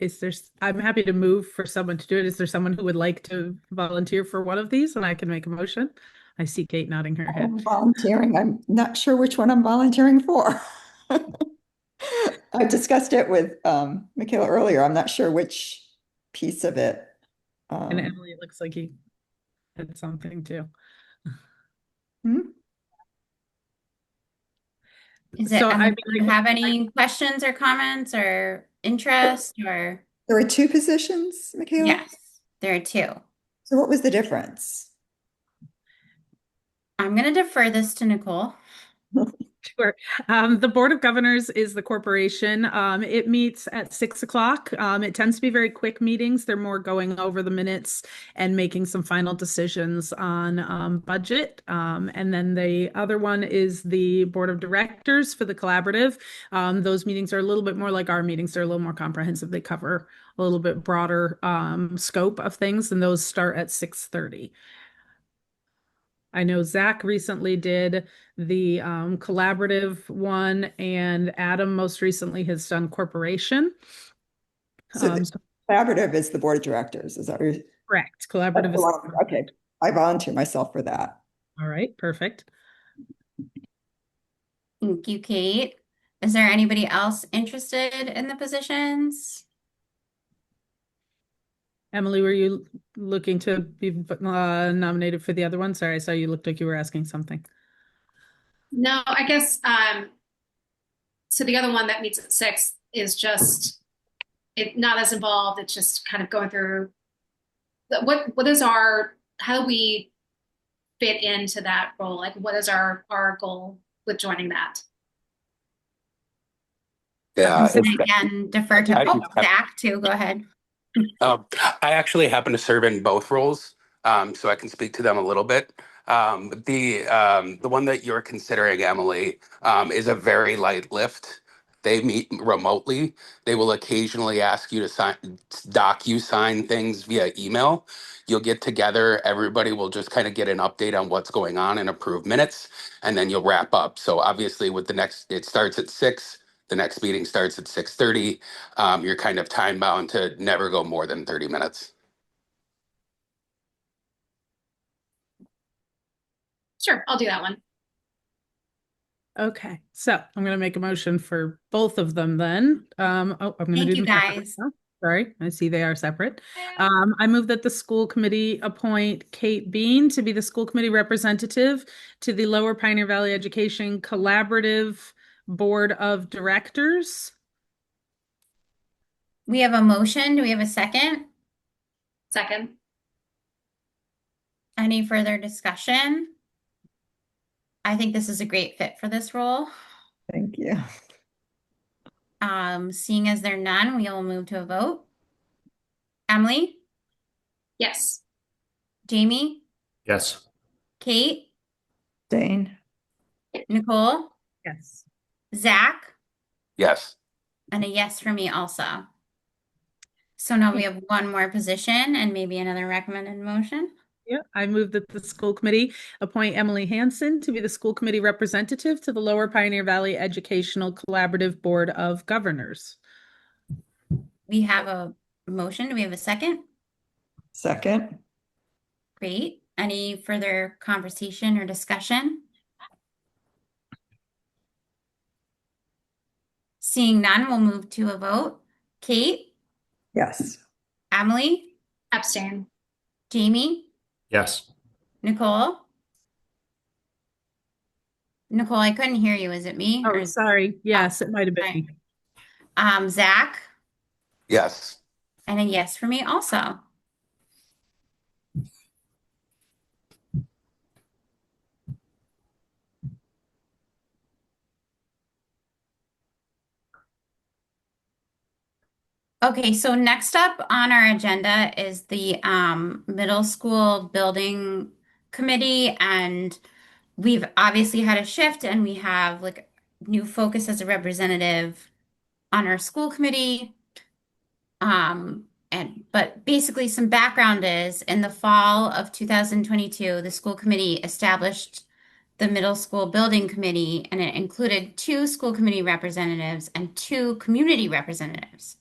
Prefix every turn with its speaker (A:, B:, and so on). A: is there, s- I'm happy to move for someone to do it. Is there someone who would like to volunteer for one of these and I can make a motion? I see Kate nodding her head.
B: I'm volunteering. I'm not sure which one I'm volunteering for. I discussed it with um Michaela earlier. I'm not sure which piece of it.
C: Oh.
A: And
B: Um,
A: Emily, it looks like he had something too.
B: hmm?
C: Is it,
A: So, I
C: um,
A: mean,
C: do you
A: like-
C: have any questions or comments or interest or?
B: There were two positions, Michaela?
C: Yes, there are two.
B: So what was the difference?
C: I'm gonna defer this to Nicole.
A: Sure. Um, the Board of Governors is the corporation. Um, it meets at six o'clock. Um, it tends to be very quick meetings. They're more going over the minutes and making some final decisions on um, budget. Um, and then the other one is the Board of Directors for the collaborative. Um, those meetings are a little bit more like our meetings. They're a little more comprehensive. They cover a little bit broader um, scope of things, and those start at six thirty. I know Zach recently did the um, collaborative one, and Adam most recently has done corporation.
B: So the-
A: Um, so-
B: Collaborative is the board of directors, is that what you're?
A: correct.
B: that's
A: Collaborative
B: the
A: is
B: one- Okay, I volunteer myself for that.
A: all right. Perfect.
C: Thank you, Kate. Is there anybody else interested in the positions?
A: Emily, were you looking to be uh, nominated for the other one? Sorry, I saw you looked like you were asking something.
D: No, I guess, um, so the other one that meets at six is just, it, not as involved, it's just kind of going through the- what, what is our, how do we fit into that role? Like, what is our, our goal with joining that?
E: Yeah,
C: And Again, defer to
E: Uh, I-
C: oh,
E: I-
C: Zach too. Go ahead.
E: um, I actually happen to serve in both roles, um, so I can speak to them a little bit. Um, the um, the one that you're considering, Emily, um, is a very light lift. They meet remotely. They will occasionally ask you to sign, doc you sign things via email. You'll get together. Everybody will just kind of get an update on what's going on and approve minutes, and then you'll wrap up. So obviously, with the next, it starts at six. The next meeting starts at six thirty um, you're kind of time bound to never go more than 30 minutes.
D: Sure, I'll do that one.
A: Okay, so I'm going to make a motion for both of them then. Um, oh, I'm going to
C: Thank
A: do
C: you,
A: them separately
C: guys.
A: now. Sorry, I see they are separate. Um, I move that the school committee appoint Kate Bean to be the school committee representative to the Lower Pioneer Valley Education Collaborative Board of Directors.
C: We have a motion. Do we have a second?
D: Second,
C: Any further discussion? I think this is a great fit for this role.
B: Thank you.
C: Um, seeing as there are none, we will move to a vote. Emily,
D: yes.
C: Jamie,
F: Yes.
C: Kate,
B: Dane?
C: Nicole,
A: Yes.
C: Zach,
E: Yes.
C: and a yes for me also. So now we have one more position and maybe another recommended motion.
A: Yeah, I move that the school committee appoint Emily Hanson to be the school committee representative to the Lower Pioneer Valley Educational Collaborative Board of Governors.
C: We have a motion. Do we have a second?
B: Second?
C: Great. Any further conversation or discussion? Seeing none, we'll move to a vote. Kate,
B: Yes.
C: Emily,
D: Abstain.
C: Jamie,
F: Yes.
C: Nicole? Nicole, I couldn't hear you. Is it me? or
A: Oh,
C: is-
A: sorry. Yes, it might have been.
C: Right.
A: me.
C: Um, Zach?
E: Yes.
C: And a yes for me also. Okay, so next up on our agenda is the um, middle school building committee, and we've obviously had a shift, and we have like new focus as a representative on our school committee. Um, and but basically, some background is in the fall of 2022, the school committee established the middle school building committee, and it included two school committee representatives and two community representatives.